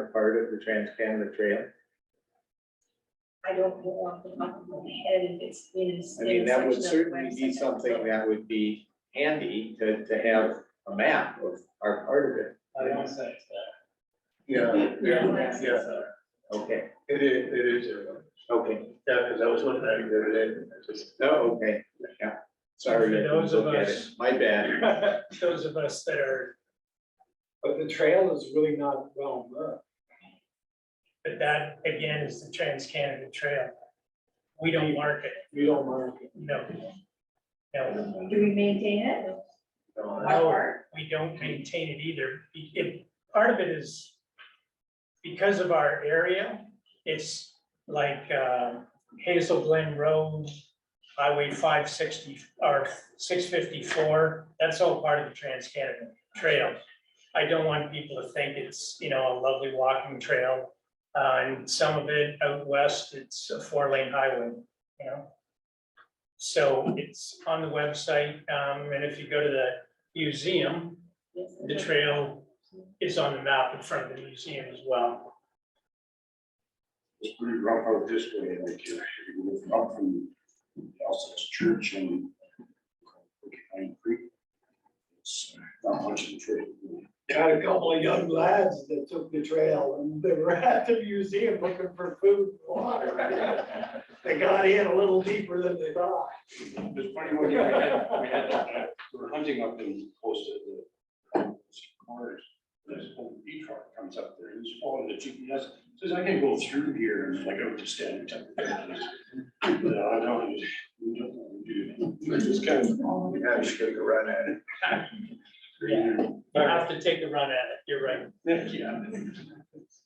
of the Trans Canada Trail? I don't know off the top of my head if it's in. its- I mean, in that would section of the certainly be website. something that would be handy to, to have a map of our part of it. I don't say it's Yeah, yeah, Yeah. yeah, Okay, it is, it is, there. okay, yeah, because I was looking at it the other day, and I just, oh, okay, yeah, sorry, I For didn't those of look at it, us- my bad. there. Those of us that are, but the trail is really not well known. but that again is the Trans Canada Trail. We don't mark it, You don't mind. no. No, Do we maintain it? No, No. Our- we don't maintain it either. Be- It, part of it is because of our area, it's like uh, Hazel Glen Road, Highway five sixty, or six fifty-four, that's all part of the Trans Canada Trail. I don't want people to think it's, you know, a lovely walking trail. Uh, and some of it out west, it's a four-lane highway, you know? So it's on the website, um, and if you go to the museum, Yes. the trail is on the map in front of the museum as well. It's pretty rough out this way, like you you live up from Elsa's Church and Pine Creek. It's uh, not much of a trip. Got a couple of young lads that took the trail and they were at the museum looking for food and water. They got in a little deeper than they thought. It's funny when we had, we had, uh, we were hunting up in close to the corners. This whole E truck comes up there, he's following the GPS, says, I can go through here, and like, I would just stand. and tap the GPS. No, I don't, we don't want to do. it. Just kind of, oh, we Yeah, had you to should go run at it. You have to take a run at it, you're right.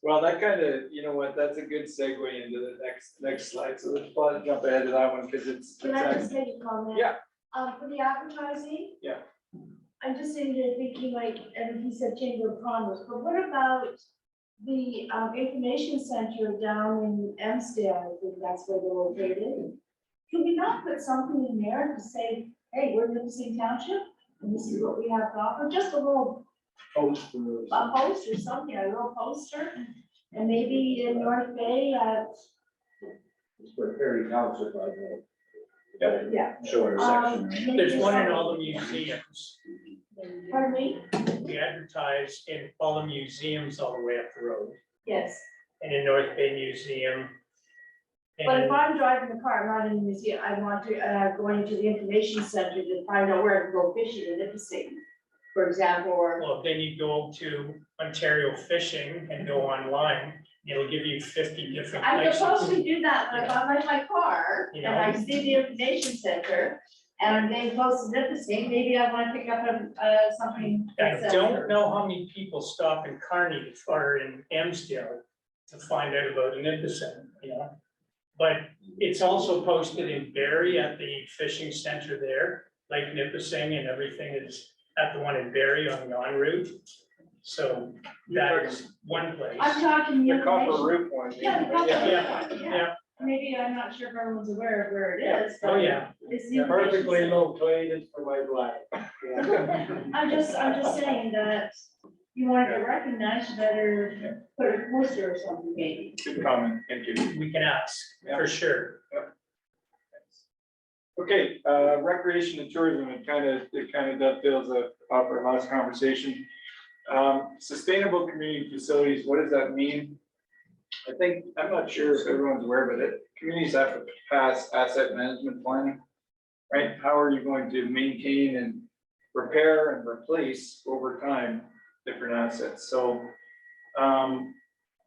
Well, that kind of, you know what, that's a good segue into the next, next slide, so let's probably jump ahead to that one, because it's. Can I just make a comment? Yeah. Um, for the advertising? Yeah. I'm just sitting here thinking like, and he said Chamber of Commerce, but what about the, um, information center down in Amsterdam? I think that's where they're located. Can we not put something in there to say, hey, we're Nipissing Township, and this is what we have to offer, just a little Post for- a post or something, a little poster? And maybe in North Bay, uh, For Perry Township, I know. yeah, Shorter um. section. maybe There's one in some- all the museums. Pardon me? We advertise in all the museums all the way up the road Yes. and in North Bay Museum. But if And I'm driving the car, I'm not in the museum, I want to, uh, going to the information center to find out where I can go fishing in Nipissing, for example, or. well, then you go to Ontario Fishing and go online, it'll give you fifty different I'm supposed to places. do that, but if I'm in my car and I see the information center and I'm getting close to Nipissing, maybe I wanna pick up a, uh, something. I that's, uh, don't know how many people stop in Kearney or in Amsterdam to find out about Nipissing, you know? But it's also posted in Barry at the fishing center there, Lake Nipissing and everything is at the one in Barry on the en route. So that is one I'm place. Oh, talking the The copper information. roof one. Yeah, the copper. Yeah, roof, yeah. Maybe I'm not sure if everyone's aware of where Yeah. it is, but. Oh, yeah, It's the information Perfectly center. located for my black. I'm just, I'm just saying that you want to recognize, you better put a poster or something maybe. Good comment, thank you. we can ask, for sure. Okay, uh, recreation and tourism, it kind of, it kind of dovetails off off our last conversation. Um, sustainable community facilities, what does that mean? I think, I'm not sure if everyone's aware, but it, communities have to pass asset management planning. Right, how are you going to maintain and repair and replace over time different assets, so. Um,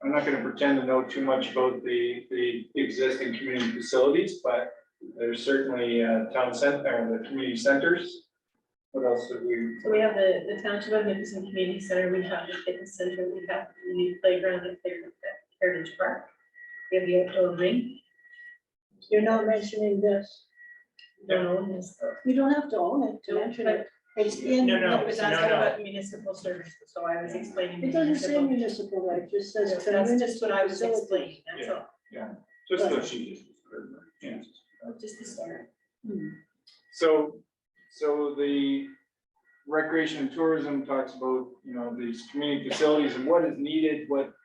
I'm not gonna pretend to know too much about the, the existing community facilities, but there's certainly uh, town center, or the community centers. What else have we, So we have the, the township of Nipissing Community Center, we have the fitness center, we have the new playground at Fair- Heritage Park. We have the outdoor ring. You're not mentioning this. No, it's, You don't have to own it to mention it. It's in. No, no, no, but that's all no, no. about municipal services, so I was explaining. It doesn't say municipal. municipal, right, it just says. That's just what I was community explaining, that's all, just Right. the she Yeah. just the start. So, so the recreation and tourism talks about, you know, these community facilities and what is needed, what